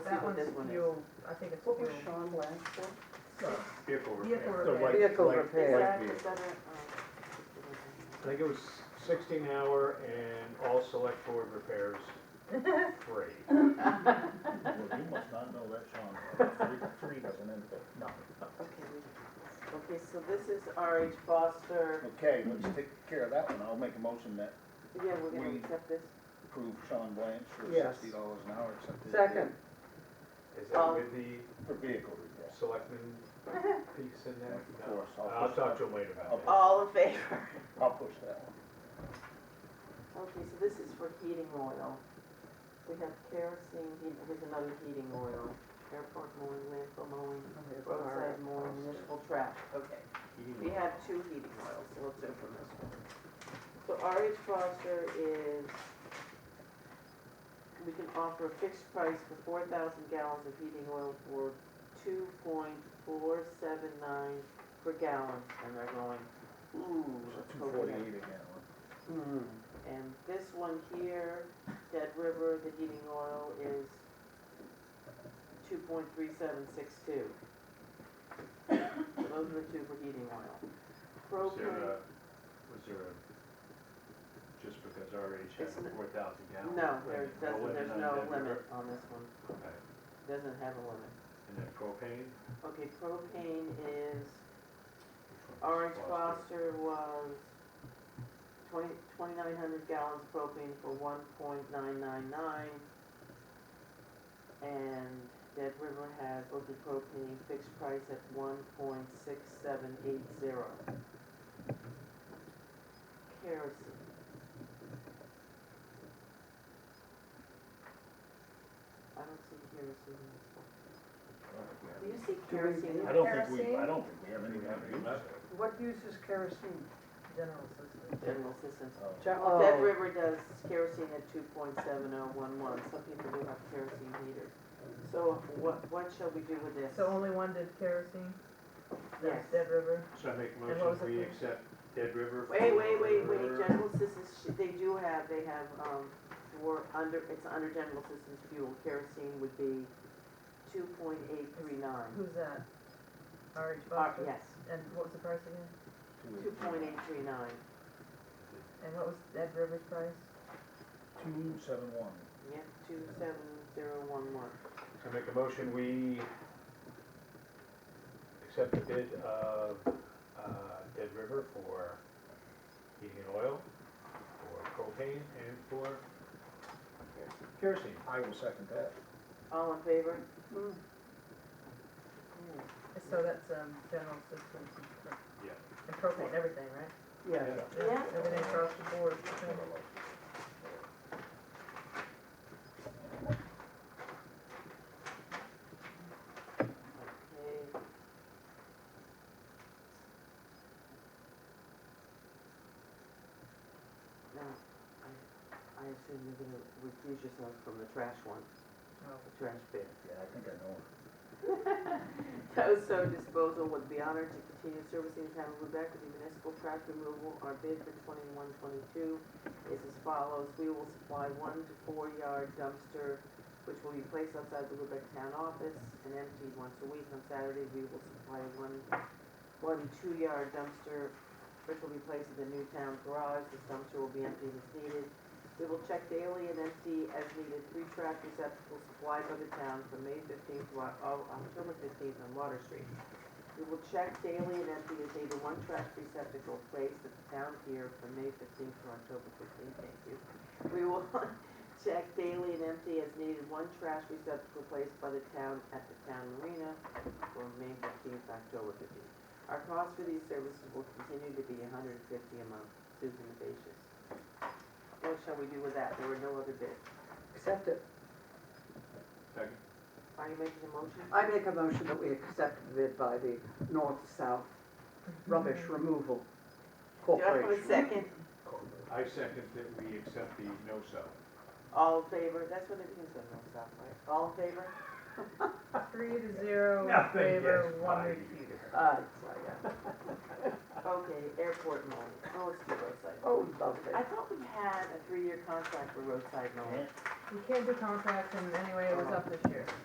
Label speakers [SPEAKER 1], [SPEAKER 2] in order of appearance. [SPEAKER 1] that
[SPEAKER 2] what
[SPEAKER 1] one's,
[SPEAKER 2] this one is.
[SPEAKER 1] you'll, I think it's
[SPEAKER 3] What was
[SPEAKER 1] you'll,
[SPEAKER 3] Sean last for?
[SPEAKER 1] Vehicle
[SPEAKER 4] Vehicle repair.
[SPEAKER 1] repair.
[SPEAKER 4] The light-
[SPEAKER 3] Vehicle
[SPEAKER 4] light-
[SPEAKER 3] repair.
[SPEAKER 4] light
[SPEAKER 2] that, is
[SPEAKER 4] vehicle.
[SPEAKER 2] that a, um,
[SPEAKER 4] I think it was sixteen hour and all select board repairs free.
[SPEAKER 5] Well, you must not know that, Sean. Three, three doesn't end there. No.
[SPEAKER 2] okay, we, Oh, okay, so this is RH Foster,
[SPEAKER 5] Okay, let's take care of that one. I'll make a motion that
[SPEAKER 2] yeah, we're gonna
[SPEAKER 5] We-
[SPEAKER 2] accept this,
[SPEAKER 5] approve Sean Blanch for
[SPEAKER 3] Yes.
[SPEAKER 5] sixty dollars an hour, except his.
[SPEAKER 3] Second,
[SPEAKER 4] Is that
[SPEAKER 2] Um,
[SPEAKER 4] with the
[SPEAKER 5] For vehicle repair.
[SPEAKER 4] selectmen piece in there?
[SPEAKER 5] Of
[SPEAKER 4] No.
[SPEAKER 5] course, I'll
[SPEAKER 4] I'll
[SPEAKER 5] push
[SPEAKER 4] talk
[SPEAKER 5] that.
[SPEAKER 4] to him later
[SPEAKER 5] I'll
[SPEAKER 4] about that.
[SPEAKER 2] all in favor?
[SPEAKER 5] I'll push that one.
[SPEAKER 2] Okay, so this is for heating oil. We have kerosene, heat- here's another heating oil, airport mowing, landfill mowing, roadside mowing, municipal trash, okay. We have two heating oils, so let's open this one. So RH Foster is, we can offer a fixed price for four thousand gallons of heating oil for two point four seven nine per gallon, and they're going, ooh, let's
[SPEAKER 5] Two
[SPEAKER 2] go with that.
[SPEAKER 5] forty-eight again.
[SPEAKER 3] hmm,
[SPEAKER 2] And this one here, Dead River, the heating oil is two point three seven six two. Those are the two for heating oil.
[SPEAKER 4] Was there
[SPEAKER 2] Propane,
[SPEAKER 4] a, was there a, just because RH has
[SPEAKER 2] It's n-
[SPEAKER 4] four thousand gallons?
[SPEAKER 2] no, there
[SPEAKER 4] a
[SPEAKER 2] doesn't,
[SPEAKER 4] limit
[SPEAKER 2] there's
[SPEAKER 4] on
[SPEAKER 2] no
[SPEAKER 4] oh, that
[SPEAKER 2] limit
[SPEAKER 4] number?
[SPEAKER 2] on this one,
[SPEAKER 4] Okay.
[SPEAKER 2] doesn't have a limit.
[SPEAKER 4] And then propane?
[SPEAKER 2] Okay, propane is,
[SPEAKER 4] which one was
[SPEAKER 2] Orange
[SPEAKER 4] Foster?
[SPEAKER 2] Foster was twenty, twenty-nine hundred gallons propane for one point nine nine nine. And Dead River has open propane fixed price at one point six seven eight zero. Kerosene. I don't see kerosene in this one. Do you see
[SPEAKER 3] Do we
[SPEAKER 2] kerosene? in
[SPEAKER 3] do-
[SPEAKER 5] I don't think we, I don't think we have any
[SPEAKER 4] We haven't even
[SPEAKER 5] kind
[SPEAKER 4] left
[SPEAKER 5] of.
[SPEAKER 4] it.
[SPEAKER 3] what uses kerosene?
[SPEAKER 1] general assistance.
[SPEAKER 2] General assistance.
[SPEAKER 5] Oh,
[SPEAKER 3] General,
[SPEAKER 2] Well, Dead River does kerosene at two point seven oh one one, some people do have kerosene heaters. So what, what shall we do with this?
[SPEAKER 1] So only one did kerosene?
[SPEAKER 2] Yes.
[SPEAKER 1] Dead River?
[SPEAKER 4] So I make a
[SPEAKER 1] And what was
[SPEAKER 4] motion, we
[SPEAKER 1] it?
[SPEAKER 4] accept Dead River.
[SPEAKER 2] Wait, wait, wait, wait,
[SPEAKER 4] for-
[SPEAKER 2] general assistance, sh- they do have, they have, um, for, under, it's under general assistance fuel, kerosene would be two point eight three nine.
[SPEAKER 1] Who's that? RH
[SPEAKER 2] Uh,
[SPEAKER 1] Foster?
[SPEAKER 2] yes,
[SPEAKER 1] And what was the price again?
[SPEAKER 5] two
[SPEAKER 2] two point eight three nine,
[SPEAKER 1] And what was Dead River's price?
[SPEAKER 5] Two seven one.
[SPEAKER 2] yep, two seven zero one one.
[SPEAKER 4] So I make a motion, we accept the bid of uh, Dead River for heating and oil, for propane, and for kerosene.
[SPEAKER 5] I will second that.
[SPEAKER 2] All in favor?
[SPEAKER 3] Hmm.
[SPEAKER 2] Hmm.
[SPEAKER 1] So that's, um, general assistance and-
[SPEAKER 4] Yeah.
[SPEAKER 1] and propane, everything, right?
[SPEAKER 3] yeah,
[SPEAKER 2] Yeah.
[SPEAKER 1] Everything across the board. okay.
[SPEAKER 2] Okay. Now, I, I assume you're gonna recuse yourself from the trash one,
[SPEAKER 1] Oh.
[SPEAKER 2] the trash bid.
[SPEAKER 5] Yeah, I think I know.
[SPEAKER 2] Toso Disposal would be honored to continue servicing the town of Lubec with the municipal trash removal. Our bid for twenty-one, twenty-two is as follows. We will supply one to four yard dumpster, which will be placed outside the Lubec town office and emptied once a week. On Saturday, we will supply one, one two yard dumpster, which will be placed in the new town garage. This dumpster will be emptied as needed. We will check daily and empty as needed three trash receptacles supplied by the town from May fifteenth to Oc- oh, October fifteenth on Water Street. We will check daily and empty as needed one trash receptacle placed at the town pier from May fifteenth to October fifteenth, thank you. We will check daily and empty as needed one trash receptacle placed by the town at the town marina from May fifteenth to October fifteenth. Our cost for these services will continue to be hundred and fifty a month, Susan Abatius. What shall we do with that? There were no other bids.
[SPEAKER 3] accept it.
[SPEAKER 4] Second.
[SPEAKER 2] Are you making a motion?
[SPEAKER 3] I make a motion that we accept the bid by the North-South Rubbish Removal
[SPEAKER 2] Do I have a
[SPEAKER 3] Corporation.
[SPEAKER 2] second?
[SPEAKER 4] I second that we accept the no-sell.
[SPEAKER 2] All in favor? That's what it means on North South, right? All in favor?
[SPEAKER 1] Three to zero, in
[SPEAKER 4] Nothing
[SPEAKER 1] favor,
[SPEAKER 4] gets
[SPEAKER 1] one
[SPEAKER 4] by
[SPEAKER 1] recused.
[SPEAKER 4] here.
[SPEAKER 3] Uh,
[SPEAKER 2] Okay, airport mowing. Oh, let's do roadside.
[SPEAKER 3] oh, lovely.
[SPEAKER 2] I thought we had a three-year contract for roadside mowing.
[SPEAKER 1] We can't do contracts and anyway, it was up this year.